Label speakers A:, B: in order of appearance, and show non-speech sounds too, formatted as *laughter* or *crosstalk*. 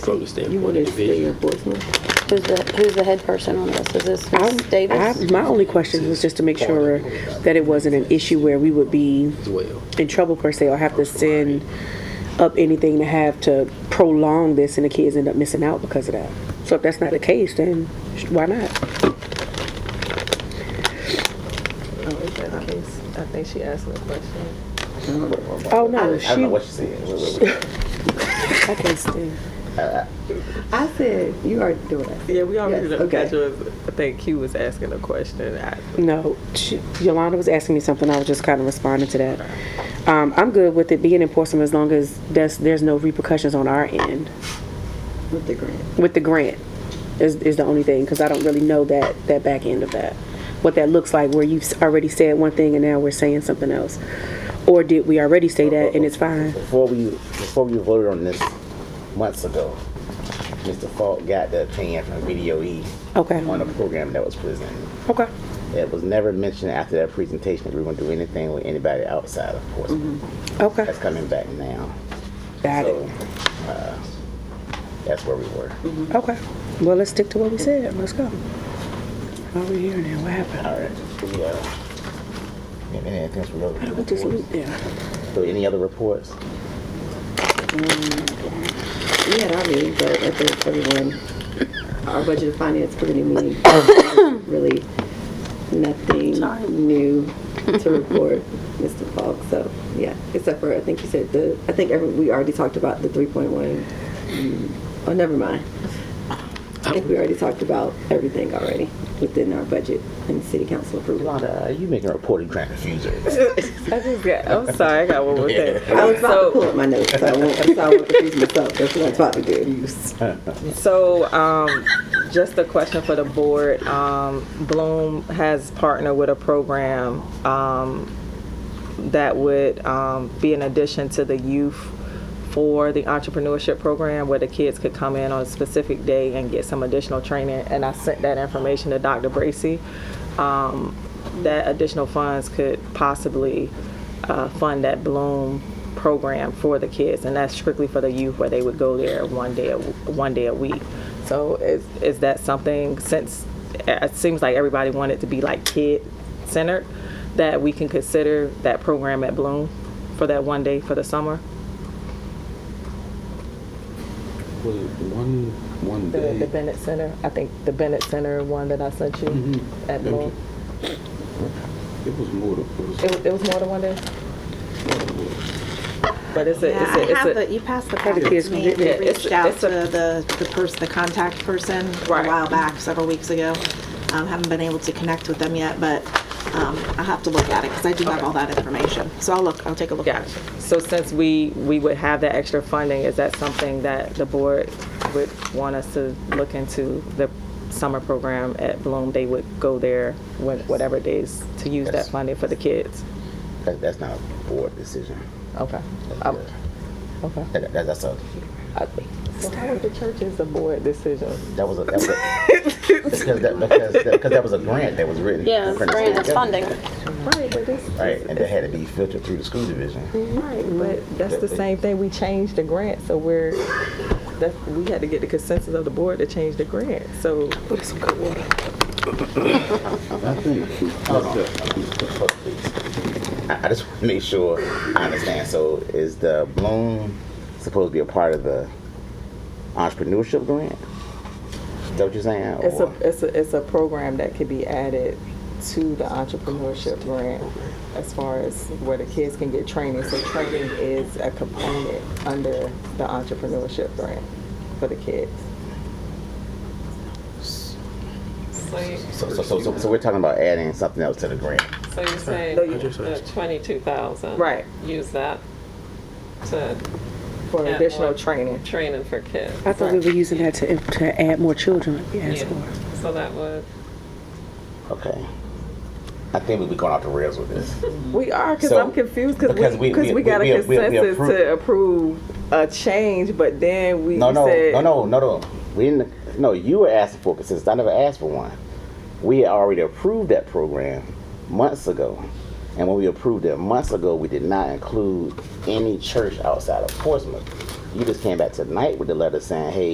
A: from the
B: You
A: standpoint
B: want
A: of
B: to stay
A: division.
B: in Portsmouth?
C: Who's the, who's the head person on this? Is this Ms.
B: I- I-
C: Davis?
B: My only question was just to make sure that it wasn't an issue where we would be
A: as well.
B: in trouble per se or have to send up anything to have to prolong this and the kids end up missing out because of that. So if that's not the case, then sh- why not?
D: Oh, is that the case? I think she asked me a question.
B: Oh, no,
E: I don't know
B: she,
E: what she said. Wait, wait, wait.
B: I can't stand.
F: I said, you already do it.
D: Yeah, we already
F: Yes,
D: did.
F: okay.
D: Okay. I think Q was asking a question. I,
B: No, she- Yolanda was asking me something, I was just kind of responding to that. Um, I'm good with it being in Portsmouth as long as there's, there's no repercussions on our end
F: With the grant.
B: with the grant is, is the only thing, because I don't really know that, that back end of that. What that looks like, where you've s- already said one thing and now we're saying something else. Or did we already say that and it's fine?
E: Before we, before we voted on this months ago, Mr. Falk got the opinion from VDOE
B: Okay,
E: on a program that was presented.
B: okay,
E: It was never mentioned after that presentation that we were going to do anything with anybody outside of Portsmouth.
B: okay.
E: That's coming back now.
B: Got
E: So,
B: it,
E: uh, that's where we were.
B: okay. Well, let's stick to what we said, let's go. Why are we here now, what happened?
E: All right. We, uh, and anything else we wrote?
B: We just looped there.
E: So any other reports?
F: We had our meeting, but I think everyone, our budget and finance committee meeting, really nothing new to report, Mr. Falk. So, yeah, except for, I think you said the, I think every, we already talked about the 3.1. mm, Oh, never mind. I think we already talked about everything already within our budget and city council approval.
E: Yolanda, are Uh, you making a report or trying to confuse her?
D: I just got. I'm sorry. I got one more *laughs* thing.
F: I was about to
D: So,
F: pull up my notes, so I won't, so I won't confuse myself. That's what I was about to do.
D: so um, just a question for the board. Um, Bloom has partnered with a program um, that would um, be an addition to the youth for the entrepreneurship program where the kids could come in on a specific day and get some additional training. And I sent that information to Dr. Bracy. Um, that additional funds could possibly uh, fund that Bloom program for the kids, and that's strictly for the youth where they would go there one day, a, one day a week. So is is that something? Since it seems like everybody wanted to be like kid centered, that we can consider that program at Bloom for that one day for the summer.
A: Was it one, one
D: The, the
A: day?
D: Bennett Center, I think the Bennett Center one that I sent you at Bloom.
A: It was more than, it was
D: It, was- it was more than one day. But it's a,
G: Yeah,
D: it's a,
G: I
D: it's
G: have
D: a,
G: the, you passed the packet
B: kids
G: to me, and
D: Yeah,
G: I
D: it's-
G: reached out
D: it's
G: to
D: a-
G: the, the person, the contact person a
D: Right.
G: while back, several weeks ago. Um, haven't been able to connect with them yet, but, um, I have to look at it, because I do have all that information. So I'll look, I'll take a look at it.
D: Gotcha. So since we, we would have that extra funding, is that something that the board would want us to look into? The summer program at Bloom, they would go there when- whatever days to use that
E: Yes.
D: funding for the kids?
E: That, that's not a board decision.
D: Okay.
E: That's,
D: Um,
E: a-
D: Okay.
E: that, that- that's a,
D: So how was the church's a board decision?
E: that was a, that was a,
D: *laughs*
E: because that, because, that, because that was a grant that was written.
C: Yeah,
E: from the state
C: grant is funding.
E: government.
D: Right, but this,
E: Right, and that had to be filtered through the school
C: Mm-hmm.
E: division.
D: right, but that's the same thing, we changed the grant, so we're, that's, we had to get the consensus of the board to change the grant, so.
A: I think.
E: But please, I, I just want to make sure I understand. So is the Bloom supposed to be a part of the entrepreneurship grant? Is that what you're saying?
D: It's a,
E: Or-
D: it's a, it's a program that could be added to the entrepreneurship grant as far as where the kids can get training. So training is a component under the entrepreneurship grant for the kids.
E: So, so, so, so, so we're talking about adding something else to the grant.
H: So you're saying
D: No, you-
H: the twenty-two thousand?
D: Right.
H: Use that to
D: For
H: Yeah.
D: additional training.
H: training for kids?
B: I thought we were using that to, to add more children, like you asked
H: Yeah.
B: for.
H: So that would,
E: Okay. I think we'll be going off the rails with this.
D: We are, because
E: So-
D: I'm confused, because
E: because
D: we,
E: we-
D: because
E: we-
D: we got
E: we-
D: a
E: we- we- we
D: consensus
E: appro-
D: to approve a change, but then we
E: No, no,
D: said.
E: no, no, no, no. We didn't. No, you were asking for it since I never asked for one. We had already approved that program months ago, and when we approved it months ago, we did not include any church outside of Portsmouth. You just came back tonight with the letter saying, "Hey,